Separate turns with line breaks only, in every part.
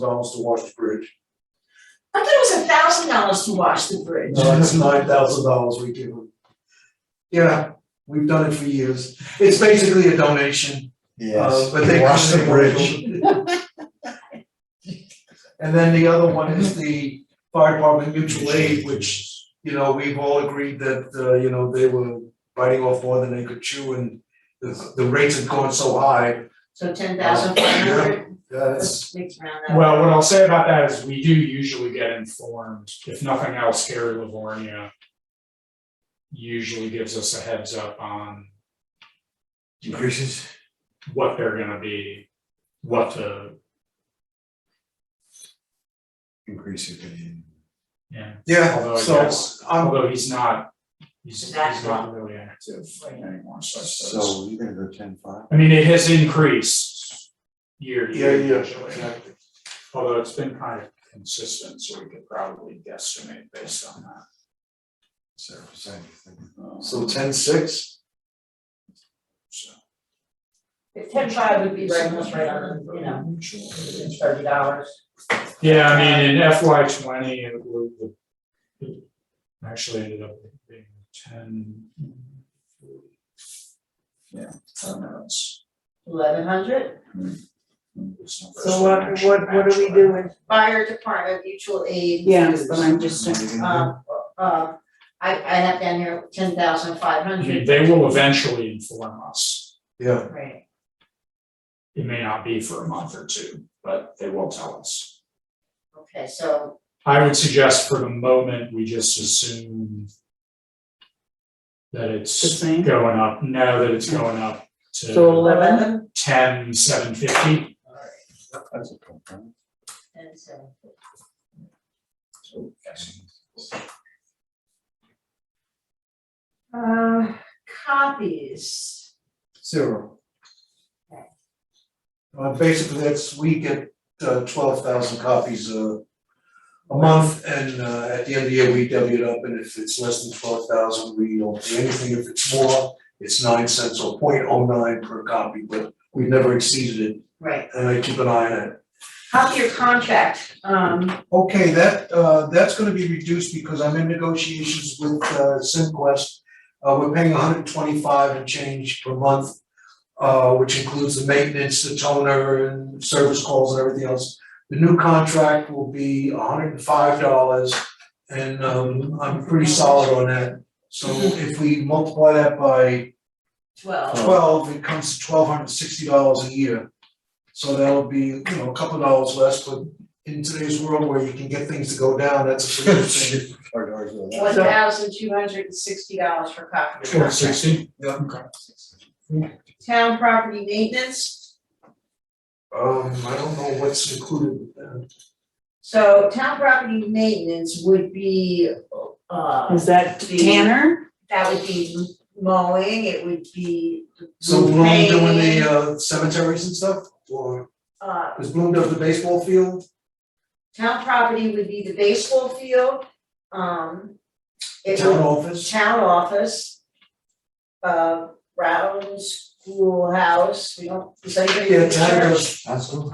dollars to wash the bridge.
I thought it was a thousand dollars to wash the bridge.
No, that's nine thousand dollars we give them. Yeah, we've done it for years. It's basically a donation, uh,
Yes,
but they.
wash the
come in
bridge.
and- And then the other one is the fire department mutual aid, which, you know, we've all agreed that, uh, you know, they were biting off more than they could chew and the, the rates have gone so high,
So ten thousand five hundred,
that's.
let's mix around that.
Well, what I'll say about that is we do usually get informed, if nothing else, Gary Livornia. Usually gives us a heads up on
Increases.
what they're gonna be, what the,
Increases. in-
yeah, Although
Yeah,
I
so
guess-
I'm,
although he's not. He's he's not
Exactly.
really active anymore, so I suppose.
So you're gonna go ten five?
I mean, it has increased year to
yeah,
year
yeah,
usually,
exactly.
although it's been kind of consistent, so we could probably guesstimate based on that.
Seven percent.
Um,
So ten six,
so.
Ten five would be right, almost right on, the, you know, thirty dollars.
Yeah, I mean, in FY twenty, it was, it actually ended up being ten. Yeah, I don't know, it's,
Eleven hundred.
it's not.
So what, what, what are we doing?
Fire department mutual aid.
Yes, but I'm just,
Uh, uh, I, I have down here ten thousand five
I mean,
hundred.
They will eventually inform us,
yeah,
Right,
it may not be for a month or two, but they will tell us.
okay, so,
I would suggest for the moment, we just assume that
The
it's
same?
going up, no, that it's going up
so
to
eleven,
ten, seven fifty.
That's a compromise.
and so, uh, copies.
zero. Uh, basically, that's, we get uh twelve thousand copies a a month, and uh at the end of the year, we double it up, and if it's less than twelve thousand, we don't pay anything, if it's more, it's nine cents or point oh nine per copy, but we've never exceeded it,
Right,
and I keep an eye on it.
copy your contract, um,
Okay, that, uh, that's gonna be reduced because I'm in negotiations with, uh, Simquest. Uh, we're paying hundred and twenty-five and change per month, uh, which includes the maintenance, the toner and service calls and everything else. The new contract will be hundred and five dollars and, um, I'm pretty solid on that. So if we multiply that by
twelve.
twelve, it comes to twelve hundred and sixty dollars a year. So that'll be, you know, a couple of dollars less, but in today's world where you can get things to go down, that's a pretty good thing.
Or- or- or that.
One thousand two hundred and sixty dollars for copy. of
Twelve
contract.
sixty?
Yeah.
Okay.
Town property maintenance,
Um, I don't know what's included with that.
so town property maintenance would be, uh,
is that Tanner?
that would be mowing, it would be.
So Bloom doing
repaving,
the uh cemeteries and stuff, or
Uh,
is Bloom does the baseball field?
town property would be the baseball field, um,
The
it
Town
would,
office?
town office. Uh, Brown Schoolhouse, we don't, is anybody in
Yeah,
the church?
town does.
Absolutely.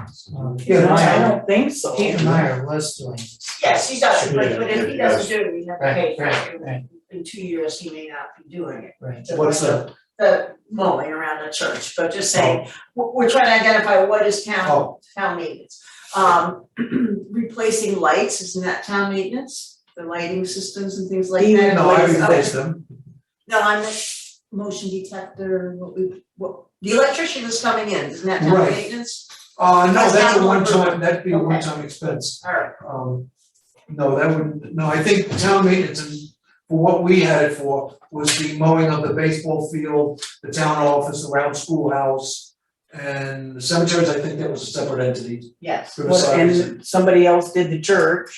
Yeah, the
I
town,
don't think so.
Peter Meyer was doing this.
Yes, he does, but but if he
Yeah.
doesn't do it, we have to pay
Right,
for
right,
it,
right.
in two years, he may not be doing it.
Right.
what's that?
The mowing around the church, but just saying,
Oh.
we're we're trying to identify what is town
Oh,
town maintenance. Um replacing lights, isn't that town maintenance, the lighting systems and things like that?
Even
no, I
Lights, okay.
replaced them.
No, I'm motion detector, what we, what, the electrician is coming in, isn't that town
Right.
maintenance?
Uh, no,
That's
that's
not
a
one
one-time,
person.
that'd be a
Okay.
one-time expense.
Alright,
Um, no, that would, no, I think town maintenance, and for what we had it for, was the mowing of the baseball field, the town office, around schoolhouse. And the cemeteries, I think that was a separate entity,
yes,
What-
Riverside, is-
And somebody else did the church,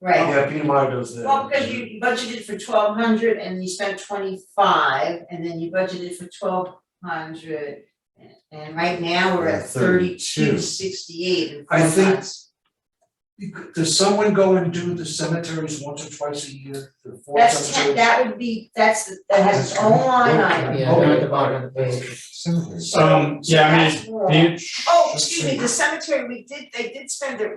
right.
yeah, Peter Meyer does that.
Well, because you budgeted for twelve hundred and you spent twenty-five, and then you budgeted for twelve hundred. And right now, we're at
At 32.
thirty-two sixty-eight in four
I
months.
think- You could- Does someone go and do the cemeteries once or twice a year, the four
That's ten,
cemeteries?
that would be, that's, the- that has its own line item.
Yeah, down at the bottom of the page.
Cemetery.
So-
Um, yeah, I mean,
so that's more.
The-
Oh, excuse me, the cemetery, we did, they did spend their